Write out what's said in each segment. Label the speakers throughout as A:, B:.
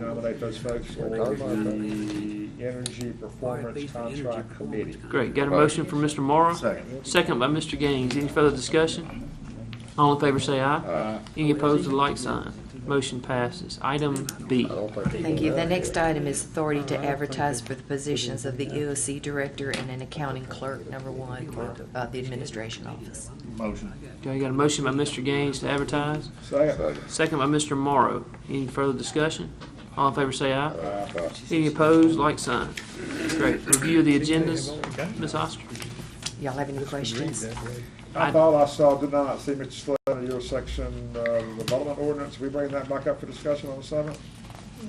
A: nominate those folks for the Energy Performance Contract Committee.
B: Great, got a motion from Mr. Morrow?
C: Second.
B: Second by Mr. Gaines. Any further discussion? All in favor say aye.
C: Aye.
B: Any opposed with a like sign. Motion passes. Item B.
C: I don't think they
D: Thank
C: do
D: you. The
C: that.
D: next item is authority to advertise for the positions of the EOC Director and an Accounting Clerk, number one, for uh, the Administration Office.
C: Motion.
B: Okay, I got a motion by Mr. Gaines to advertise,
A: Second.
B: second by Mr. Morrow. Any further discussion? All in favor say aye.
C: Aye.
B: Any opposed, like sign. Great. Review of the agendas, Ms. Oster.
D: Y'all have any questions?
A: I thought I saw, did not see, Mr. Slade, your section, uh, development ordinance, we bringing that back up for discussion on the seventh?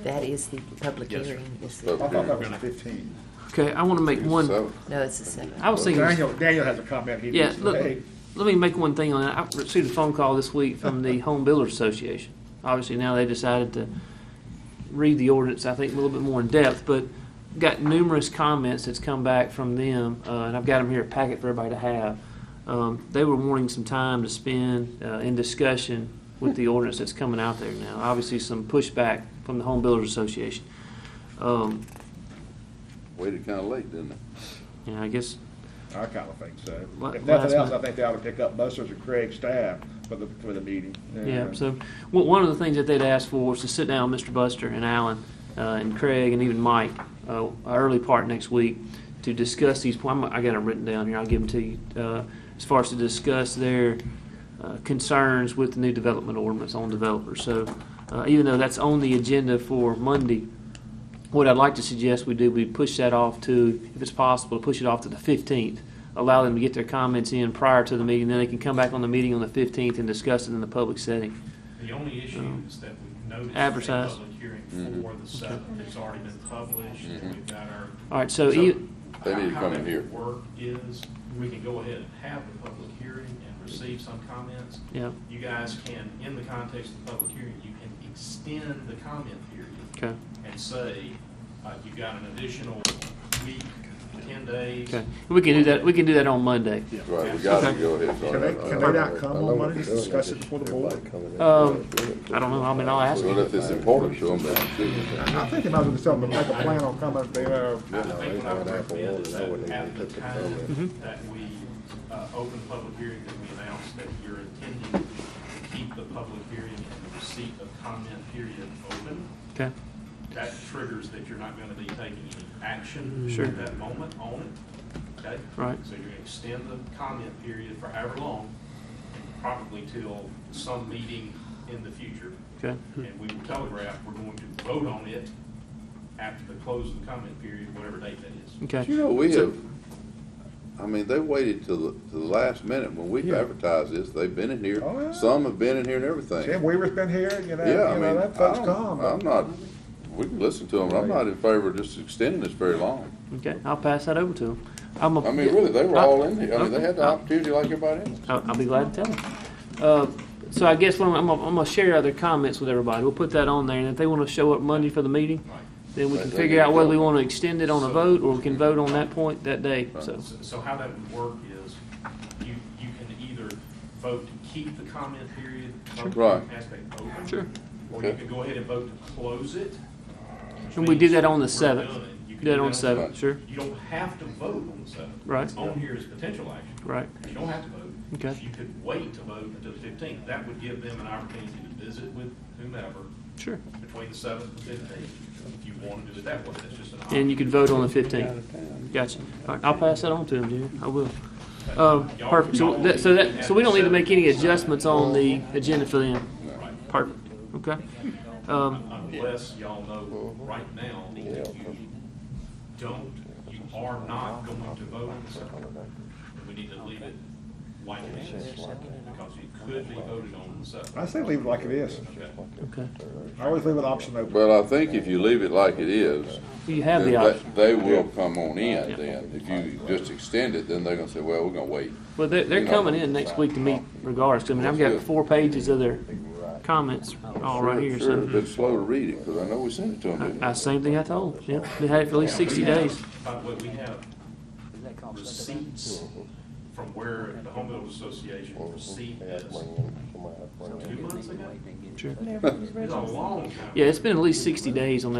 D: That is the public
E: Yes, sir.
D: hearing. It's
A: I
D: the-
A: thought that was the fifteenth.
B: Okay, I want to make one,
D: No, it's the seventh.
B: I was thinking.
A: Daniel, Daniel has a comment he
B: Yeah,
A: needs to
B: look,
A: make.
B: let me make one thing on that. I received a phone call this week from the Home Builders Association. Obviously, now they decided to read the ordinance, I think, a little bit more in depth, but got numerous comments that's come back from them, uh, and I've got them here, a packet for everybody to have. Um, they were wanting some time to spend, uh, in discussion with the ordinance that's coming out there now. Obviously, some pushback from the Home Builders Association. Um,
E: Waited kinda late, didn't it?
B: you know, I guess,
A: I kind of think so.
B: La-
A: If
B: last
A: nothing else, I
B: month.
A: think they ought to pick up Buster's and Craig's staff for the, for the meeting.
B: Yeah, so one one of the things that they'd asked for was to sit down with Mr. Buster and Alan uh, and Craig and even Mike uh, early part next week to discuss these. I'm- I got them written down here. I'll give them to you uh, as far as to discuss their uh, concerns with the new development ordinance on developers. So uh, even though that's on the agenda for Monday, what I'd like to suggest we do, we push that off to, if it's possible, push it off to the fifteenth. Allow them to get their comments in prior to the meeting, then they can come back on the meeting on the fifteenth and discuss it in the public setting.
F: The only
B: Um,
F: issue is that we've noticed a
B: Advertise.
F: public hearing
B: Mm-hmm.
F: for the seventh, it's already been published, and we've got our.
B: All right, so e-
E: They need to
F: how
E: come
F: that
E: in here.
F: would Work is, we can go ahead and have the public hearing and receive some comments.
B: yeah,
F: You guys can, in the context of the public hearing, you can extend the comment period
B: okay,
F: and say, uh, you've got an additional week, ten days.
B: okay. We can do that, we can do that on Monday.
E: Right, we gotta go ahead.
A: Can they, can they not come on Monday, to discuss it before the board?
B: Um, I don't know, I mean, I'll ask.
E: Well, if it's important to them, then
A: I think they might as well just tell them to make a plan on coming, they, uh,
F: I think what I would recommend is that at the time that we uh, open the public hearing, that we announce that you're intending to keep the public hearing and the receipt of comment period open.
B: Okay,
F: That triggers that you're not going to be taking any action
B: Sure.
F: at that moment on it, okay?
B: Right.
F: So you're going to extend the comment period for however long, and probably till some meeting in the future.
B: okay,
F: And we will telegraph, we're going to vote on it after the close of the comment period, whatever date that is.
B: okay.
E: You know, we have, I mean, they waited till the, till the last minute when we
A: Yeah.
E: advertised this. They've been in here.
A: Oh, yeah.
E: Some have been in here and everything.
A: Sam Weaver's been here, you know,
E: Yeah, I
A: you
E: mean,
A: know, that folks
E: I
A: come.
E: don't- I'm not, we can listen to them. I'm not in favor of just extending this very long.
B: Okay, I'll pass that over to them. I'm a-
E: I mean, really, they were
B: I-
E: all in here. I mean, they had the
B: I-
E: opportunity like everybody else.
B: I'll, I'll be glad to tell them. Uh, so I guess what I'm, I'm, gonna- I'm gonna share other comments with everybody. We'll put that on there, and if they want to show up Monday for the meeting,
F: Right.
B: then we
E: Right,
B: can
E: they
B: figure
E: need
B: out
E: to
B: whether we
E: vote.
B: want to extend it on a
F: So-
B: vote or we can vote on that point that day. So,
F: So- So how that would work is, you, you can either vote to keep the comment period, vote
E: Right.
F: to aspect open.
B: Sure.
F: Or you
E: Okay.
F: can go ahead and vote to close it. which
B: and we did
F: means
B: that on the
F: we're
B: seventh.
F: done. You can
B: Did that on the seventh,
E: Right.
B: sure,
F: You don't have to vote on the seventh.
B: Right.
F: What's on here is potential action.
B: right.
F: You don't have to vote.
B: Okay.
F: You could wait to vote until the fifteenth. That would give them an opportunity to visit with whomever
B: Sure.
F: between the seventh and fifteenth. If you want to do it that way, that's just an option.
B: And you could vote on the fifteenth. Gotcha. All right, I'll pass that on to him, Junior. I will. Um, perfect. So that, so that, so we don't need to make any adjustments on the agenda for them. Perfect. Okay. Um,
F: unless y'all know right now that you don't, you are not going to vote on something. We need to leave it like it is, because it could be voted on in
A: I
F: separate.
A: say leave it like it is.
F: Okay.
B: okay.
A: I always leave an option open.
E: But I think if you leave it like it is,
B: You have
E: then
B: the
E: they-
B: option.
E: They will come on in then. If you just extend it, then they're gonna say, well, we're gonna wait.
B: Well, they're, they're
E: You know.
B: coming in next week to meet regardless. I mean, I've got four pages of their comments all right here,
E: Sure,
B: so.
E: but slow to read it, because I know we sent it to them, didn't we?
B: Uh, same thing I told, 'em, yeah. They had it for at least sixty days.
F: By the way, we have receipts from where the Home Builders Association received this two months ago?
B: Sure.
F: It's a long time.
B: Yeah, it's been at least sixty days on that